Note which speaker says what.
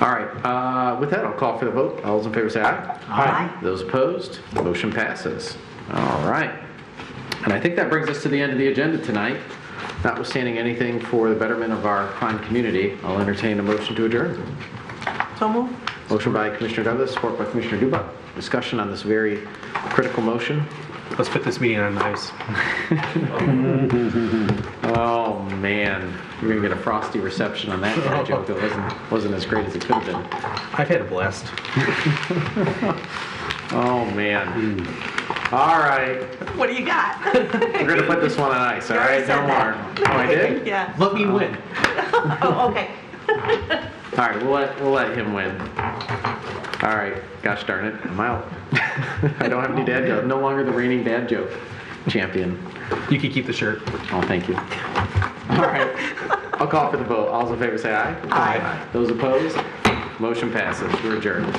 Speaker 1: All right, uh, with that, I'll call for the vote. All those in favor say aye.
Speaker 2: Aye.
Speaker 1: Those opposed, motion passes. All right. And I think that brings us to the end of the agenda tonight. Notwithstanding anything for the betterment of our fine community, I'll entertain a motion to adjourn.
Speaker 2: So moved.
Speaker 1: Motion by Commissioner Douglas, support by Commissioner Dubak. Discussion on this very critical motion.
Speaker 3: Let's put this meeting on ice.
Speaker 1: Oh, man, you're gonna get a frosty reception on that kind of joke that wasn't, wasn't as great as it could have been.
Speaker 3: I've had a blast.
Speaker 1: Oh, man. All right,
Speaker 2: What do you got?
Speaker 1: we're gonna put this one on ice, all
Speaker 2: You already
Speaker 1: right? No
Speaker 2: said that.
Speaker 1: more. Oh, I did?
Speaker 2: Yeah.
Speaker 3: Let me win.
Speaker 2: Oh, okay.
Speaker 1: All right, we'll let, we'll let him win. All right, gosh darn it, I'm out. I don't have any dad joke, no longer the reigning dad joke champion.
Speaker 3: You can keep the shirt.
Speaker 1: Oh, thank you. All right, I'll call for the vote. All those in favor say aye.
Speaker 2: Aye.
Speaker 1: Those opposed? Motion passes. We're adjourned.